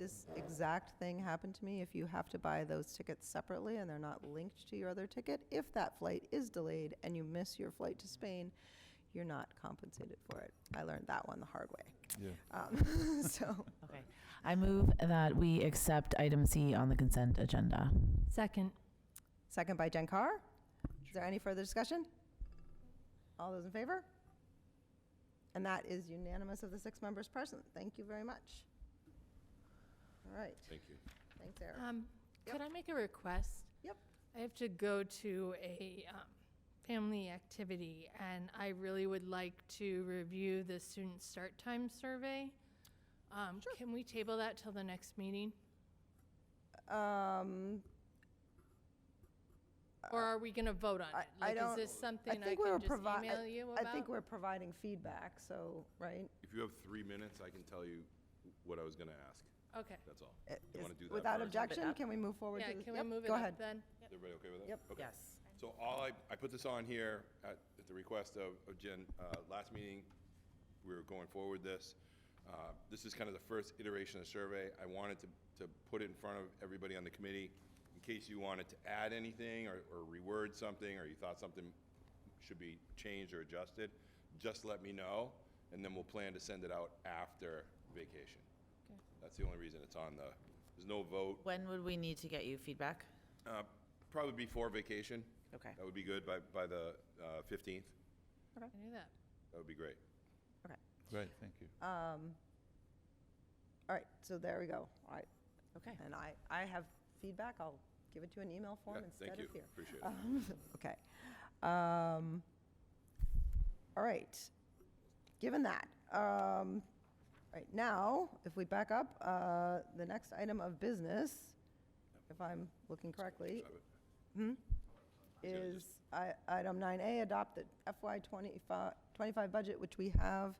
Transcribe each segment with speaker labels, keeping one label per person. Speaker 1: this exact thing happened to me. If you have to buy those tickets separately and they're not linked to your other ticket, if that flight is delayed and you miss your flight to Spain, you're not compensated for it. I learned that one the hard way.
Speaker 2: Yeah.
Speaker 1: Um, so,
Speaker 3: Okay. I move that we accept item C on the consent agenda.
Speaker 4: Second.
Speaker 1: second by Jen Carr. Is there any further discussion? All those in favor? And that is unanimous of the six members present. Thank you very much. All right.
Speaker 2: Thank you.
Speaker 1: Thanks, Eric.
Speaker 5: Um, Could I make a request?
Speaker 1: Yep.
Speaker 5: I have to go to a um, family activity, and I really would like to review the student start time survey. Um, Can we table that till the next meeting?
Speaker 1: Um,
Speaker 5: Or are we going to vote on
Speaker 1: Uh, I,
Speaker 5: it?
Speaker 1: I
Speaker 5: Like,
Speaker 1: don't.
Speaker 5: Is this something I
Speaker 1: think we were
Speaker 5: can just
Speaker 1: provi-
Speaker 5: email you
Speaker 1: I think
Speaker 5: about?
Speaker 1: we're providing feedback, so, right?
Speaker 2: If you have three minutes, I can tell you what I was going to ask.
Speaker 5: Okay.
Speaker 2: That's all.
Speaker 1: It
Speaker 2: You want
Speaker 1: Uh, is-
Speaker 2: to do that
Speaker 1: Without
Speaker 2: first?
Speaker 1: objection, can we move forward?
Speaker 5: Yeah,
Speaker 1: to the-
Speaker 5: can we
Speaker 1: yep,
Speaker 5: move it
Speaker 1: go
Speaker 5: up
Speaker 1: ahead.
Speaker 5: then?
Speaker 2: Everybody okay with that?
Speaker 1: Yep.
Speaker 2: Okay.
Speaker 3: Yes.
Speaker 2: So all I, I put this on here at, at the request of, of Jen, uh, last meeting, we were going forward this. Uh, This is kind of the first iteration of the survey. I wanted to, to put it in front of everybody on the committee in case you wanted to add anything or, or reword something, or you thought something should be changed or adjusted, just let me know, and then we'll plan to send it out after vacation.
Speaker 5: Okay.
Speaker 2: That's the only reason it's on the, there's no vote,
Speaker 3: When would we need to get you feedback?
Speaker 2: uh, Probably before vacation.
Speaker 3: Okay.
Speaker 2: That would be good, by, by the uh, 15th.
Speaker 5: I can do that.
Speaker 2: That would be great.
Speaker 1: Okay.
Speaker 6: Great, thank you.
Speaker 1: All right, so there we go. All right.
Speaker 3: Okay.
Speaker 1: And I, I have feedback. I'll give it to an email
Speaker 2: Yeah,
Speaker 1: form instead of
Speaker 2: Thank you,
Speaker 1: here.
Speaker 2: appreciate it.
Speaker 1: Um, Okay. Um, All right. Given that, um, all right, now, if we back up, uh, the next item of business, if I'm looking correctly, hmm, is i- item 9A, adopt the FY 25 25 budget, which we have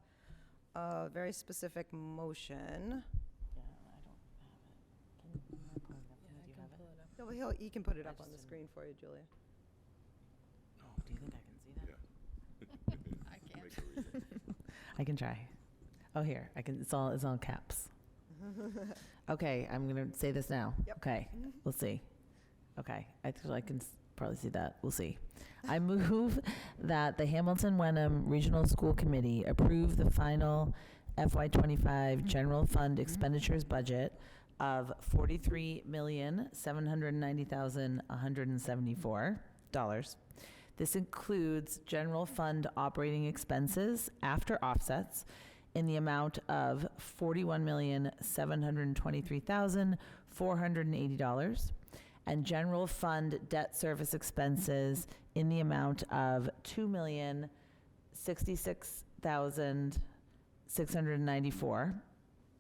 Speaker 1: a very specific motion.
Speaker 3: Yeah, I don't have it. Can you pull it up? Do you have it?
Speaker 1: No, but he'll- He can put it
Speaker 3: I
Speaker 1: up on the
Speaker 3: just didn't-
Speaker 1: screen for you, Julia.
Speaker 3: Oh, do you think I can see that?
Speaker 2: Yeah.
Speaker 5: I can't.
Speaker 2: Make a reason.
Speaker 3: I can try. Oh, here, I can, it's all, it's all caps. Okay, I'm gonna say this now.
Speaker 1: Yep.
Speaker 3: Okay, we'll see. Okay, I think I can s- probably see that, we'll see. I move that the Hamilton Wenham Regional School Committee approve the final FY twenty-five general fund expenditures budget of forty-three million, seven hundred and ninety thousand, one hundred and seventy-four dollars. This includes general fund operating expenses after offsets in the amount of $41,723,480 and general fund debt service expenses in the amount of $2,066,694.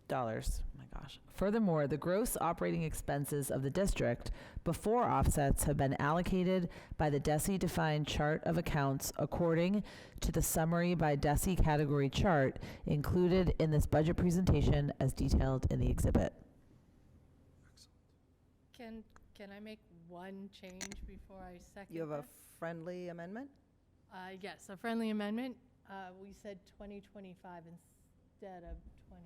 Speaker 3: Dollars. Oh my gosh. Furthermore, the gross operating expenses of the district before offsets have been allocated by the DESI defined chart of accounts according to the summary by DESI category chart included in this budget presentation as detailed in the exhibit.
Speaker 5: Can, can I make one change before I second
Speaker 1: You have a
Speaker 5: that?
Speaker 1: friendly amendment?
Speaker 5: Uh, Yes, a friendly amendment. Uh, We said 2025 instead of 20.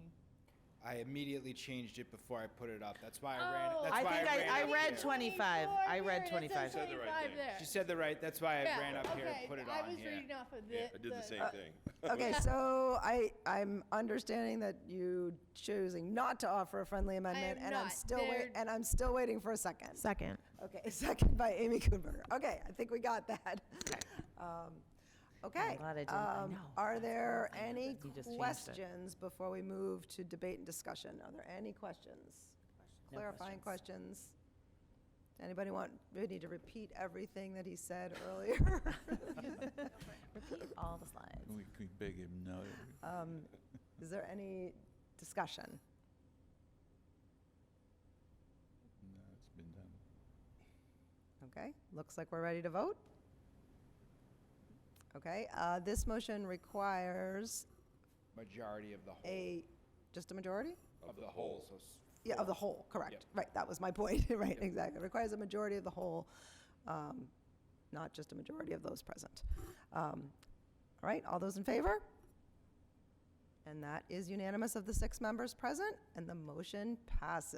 Speaker 7: I immediately changed it before I put it up. That's why I ran.
Speaker 5: Oh.
Speaker 7: That's
Speaker 5: I
Speaker 7: why
Speaker 3: think
Speaker 7: I,
Speaker 3: I-
Speaker 7: ran
Speaker 3: I
Speaker 7: up
Speaker 3: read
Speaker 7: here.
Speaker 3: 25. I read
Speaker 5: Here it is, it says
Speaker 3: 25.
Speaker 2: Said the right
Speaker 5: 25
Speaker 2: thing.
Speaker 5: there.
Speaker 7: She said the right. That's why I
Speaker 5: Yeah,
Speaker 7: ran up here
Speaker 5: okay,
Speaker 7: and put it
Speaker 5: I
Speaker 7: on
Speaker 5: was
Speaker 7: here.
Speaker 5: reading off of
Speaker 2: Yeah,
Speaker 5: the.
Speaker 2: I did the same thing.
Speaker 1: Okay, so I, I'm understanding that you choosing not to offer a friendly amendment,
Speaker 5: am
Speaker 1: and I'm
Speaker 5: not.
Speaker 1: still, wait-
Speaker 5: They're-
Speaker 1: and I'm still waiting for a second.
Speaker 4: Second.
Speaker 1: Okay, second by Amy Kuhnberger. Okay, I think we got that. Um, Okay.
Speaker 3: I'm glad I didn't- I
Speaker 1: um,
Speaker 3: know,
Speaker 1: Are
Speaker 3: that's
Speaker 1: there
Speaker 3: what I know,
Speaker 1: any
Speaker 3: that you just changed it.
Speaker 1: questions before we move to debate and discussion? Are there any questions? Clarifying questions? Anybody want, we need to repeat everything that he said earlier?
Speaker 3: Repeat all the slides.
Speaker 6: We could beg him no.
Speaker 1: Um, Is there any discussion?
Speaker 6: No, it's been done.
Speaker 1: Okay, looks like we're ready to vote. Okay, uh, this motion requires
Speaker 7: Majority of the whole.
Speaker 1: a, just a majority?
Speaker 7: of the whole. So s-
Speaker 1: Yeah, of the whole, correct.
Speaker 7: Yep.
Speaker 1: Right, that was my point, right, exactly. Requires a majority of the whole, um, not just a majority of those present. Um, All right, all those in favor? And that is unanimous of the six members present, and the motion passes.